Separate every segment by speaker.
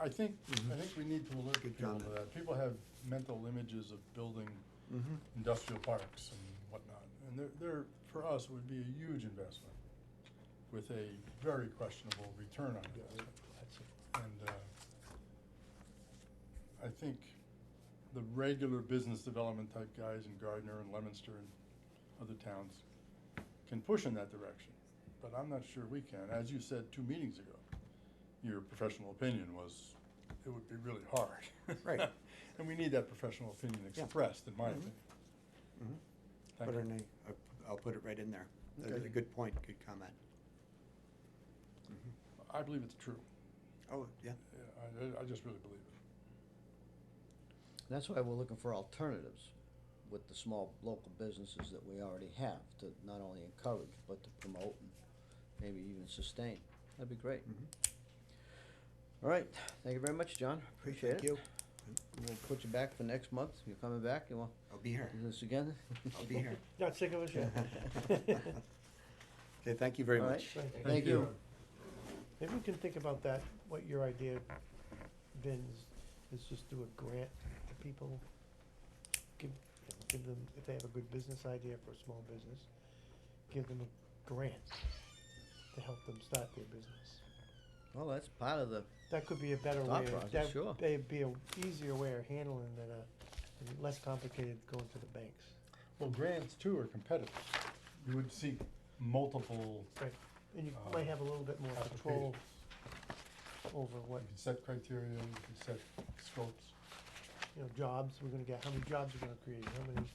Speaker 1: I think, I
Speaker 2: Mhm.
Speaker 1: think we need to alert
Speaker 2: Good
Speaker 1: people to
Speaker 2: comment.
Speaker 1: that. People have mental images of building
Speaker 2: Mm-hmm,
Speaker 1: industrial parks and whatnot. And they're, they're, for us, it would be a huge investment with a very questionable return on investment. And, uh, I think the regular business development type guys in Gardner and Lemonster and other towns can push in that direction, but I'm not sure we can. As you said two meetings ago, your professional opinion was it would be really hard.
Speaker 2: Right.
Speaker 1: And we need that professional opinion expressed, in my
Speaker 2: Mhm.
Speaker 1: opinion.
Speaker 2: Mhm.
Speaker 1: Thank
Speaker 2: Put
Speaker 1: you.
Speaker 2: it in a- I- I'll put it right in there. That is
Speaker 1: Okay.
Speaker 2: a good point, good comment. Mm-hmm.
Speaker 1: I believe it's true.
Speaker 2: Oh, yeah,
Speaker 1: Yeah, I, I- I just really believe it.
Speaker 3: That's why we're looking for alternatives with the small local businesses that we already have to not only encourage, but to promote and maybe even sustain. That'd be great.
Speaker 2: Mhm.
Speaker 3: All right, thank you very much, John. Appreciate it.
Speaker 2: thank you.
Speaker 3: We'll put you back for next month. You're coming back. You want
Speaker 2: I'll be
Speaker 3: to
Speaker 2: here.
Speaker 3: do this again?
Speaker 2: I'll be here.
Speaker 4: Not sick of us yet.
Speaker 2: Okay, thank you very
Speaker 3: All right.
Speaker 2: much.
Speaker 4: Right.
Speaker 3: Thank you.
Speaker 4: Maybe we can think about that, what your idea, Vin, is, is just do a grant to people. Give, you know, give them, if they have a good business idea for a small business, give them a grant to help them start their business.
Speaker 3: Well, that's part of the,
Speaker 4: That could be a better
Speaker 3: Thought
Speaker 4: way,
Speaker 3: process,
Speaker 4: of-
Speaker 3: sure.
Speaker 4: that, that'd be a easier way of handling than a, and less complicated going to the banks.
Speaker 1: Well, grants too are competitive. You would seek multiple
Speaker 4: Right, and you
Speaker 3: Uh,
Speaker 1: Um,
Speaker 4: might have a little bit more control
Speaker 1: applications.
Speaker 4: over what
Speaker 1: You can set criteria, you can set scopes.
Speaker 4: you know, jobs we're gonna get, how many jobs we're gonna create, how many,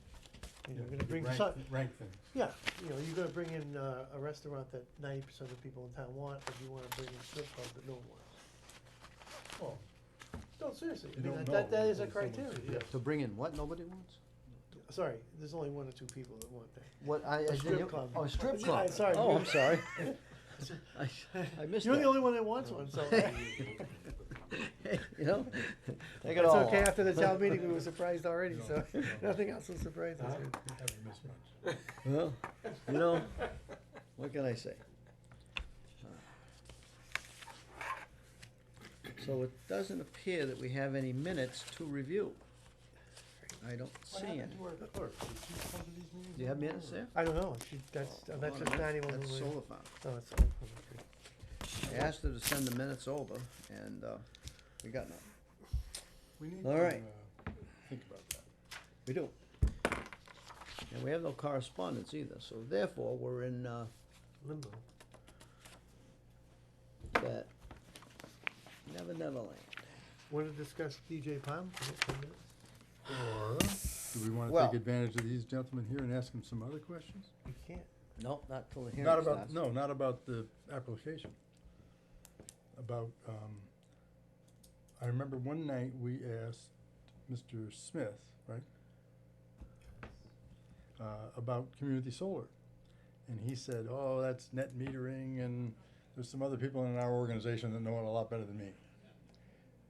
Speaker 4: you
Speaker 1: Yeah,
Speaker 4: know, we're
Speaker 1: you
Speaker 4: gonna
Speaker 1: can
Speaker 4: bring
Speaker 1: rank-
Speaker 4: some,
Speaker 1: Rank things.
Speaker 4: yeah, you know, you're gonna bring in, uh, a restaurant that ninety percent of the people in town want, or you wanna bring in a strip club that no one wants.
Speaker 1: Well,
Speaker 4: No, seriously, I
Speaker 1: You
Speaker 4: mean,
Speaker 1: don't
Speaker 4: that- that, that
Speaker 1: know
Speaker 4: is a
Speaker 1: until someone-
Speaker 4: criteria,
Speaker 1: yeah.
Speaker 4: yeah.
Speaker 3: to bring in what nobody wants?
Speaker 4: Sorry, there's only one or two people that want that.
Speaker 3: What, I, I
Speaker 4: A
Speaker 3: didn't
Speaker 4: strip
Speaker 3: hear-
Speaker 4: club.
Speaker 3: Oh, a strip
Speaker 4: Yeah,
Speaker 3: club.
Speaker 4: I'm sorry,
Speaker 3: Oh,
Speaker 4: you-
Speaker 3: I'm sorry. I, I missed
Speaker 4: You're
Speaker 3: that.
Speaker 4: the only one that wants one, so.
Speaker 3: You know? Take it
Speaker 4: It's
Speaker 3: all
Speaker 4: okay,
Speaker 3: off.
Speaker 4: after the town meeting, we were surprised already,
Speaker 1: No, Uh-huh.
Speaker 4: so,
Speaker 1: no.
Speaker 4: nothing else will surprise us.
Speaker 1: haven't haven't missed much.
Speaker 3: Well, you know, what can I say? So it doesn't appear that we have any minutes to review. I don't see
Speaker 1: What
Speaker 3: any.
Speaker 1: happened to our clerk? Did she come to these meetings?
Speaker 3: Do you have
Speaker 1: anymore,
Speaker 3: minutes
Speaker 1: or-
Speaker 3: there?
Speaker 4: I don't know, she, that's, uh,
Speaker 3: Oh,
Speaker 4: that's
Speaker 3: hold on
Speaker 4: just
Speaker 3: a minute.
Speaker 4: ninety-one.
Speaker 3: That's
Speaker 4: over there.
Speaker 3: solar farm.
Speaker 4: Oh, it's all from the tree.
Speaker 3: I asked her to send the minutes over and, uh, we got none.
Speaker 1: We need to,
Speaker 3: All right.
Speaker 1: uh, think about that.
Speaker 3: We do. And we have no correspondence either, so therefore, we're in, uh,
Speaker 4: Limbo.
Speaker 3: that Never Never Land.
Speaker 4: Want to discuss DJ Palm? for a few minutes?
Speaker 1: Or, do we wanna
Speaker 3: Well-
Speaker 1: take advantage of these gentlemen here and ask them some other questions?
Speaker 4: You can't.
Speaker 3: Nope, not till the hearing
Speaker 1: Not
Speaker 3: starts.
Speaker 1: about, no, not about the application. About, um, I remember one night we asked Mr. Smith, right? Uh, about community solar. And he said, oh, that's net metering and there's some other people in our organization that know it a lot better than me.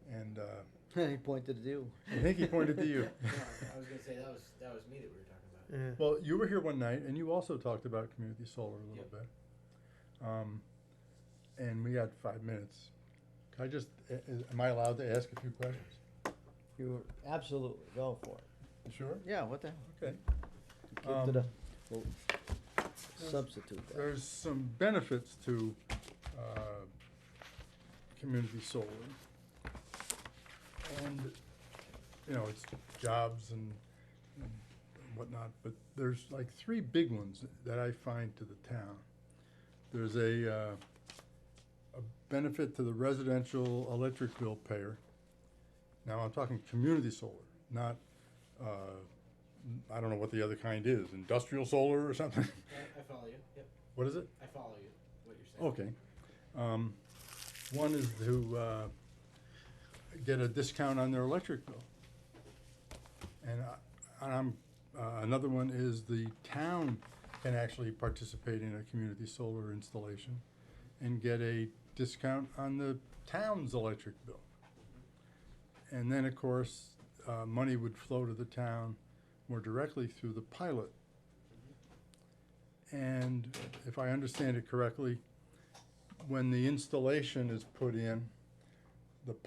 Speaker 1: And, uh,
Speaker 3: He pointed at you.
Speaker 1: I think he pointed to you.
Speaker 5: No, I I was gonna say, that was, that was me that we were talking about.
Speaker 4: Yeah.
Speaker 1: Well, you were here one night and you also talked about community solar a little
Speaker 5: Yep.
Speaker 1: bit. Um, and we got five minutes. Can I just, a- a- am I allowed to ask a few questions?
Speaker 3: You were absolutely go for it.
Speaker 1: You Sure.
Speaker 3: Yeah, what the hell?
Speaker 1: Okay.
Speaker 3: Give to
Speaker 1: Um,
Speaker 3: the- we'll substitute that.
Speaker 1: There's some benefits to, uh, community solar. And, you know, it's jobs and and whatnot, but there's like three big ones that I find to the town. There's a, uh, a benefit to the residential electric bill payer. Now, I'm talking community solar, not, uh, I don't know what the other kind is, industrial solar or something?
Speaker 5: I, I follow you, yep,
Speaker 1: What is it?
Speaker 5: I follow you, what you're saying.
Speaker 1: Okay. Um, one is to, uh, get a discount on their electric bill. And I, and I'm, uh, another one is the town can actually participate in a community solar installation and get a discount on the town's electric bill. And then, of course, uh, money would flow to the town more directly through the pilot. And if I understand it correctly, when the installation is put in,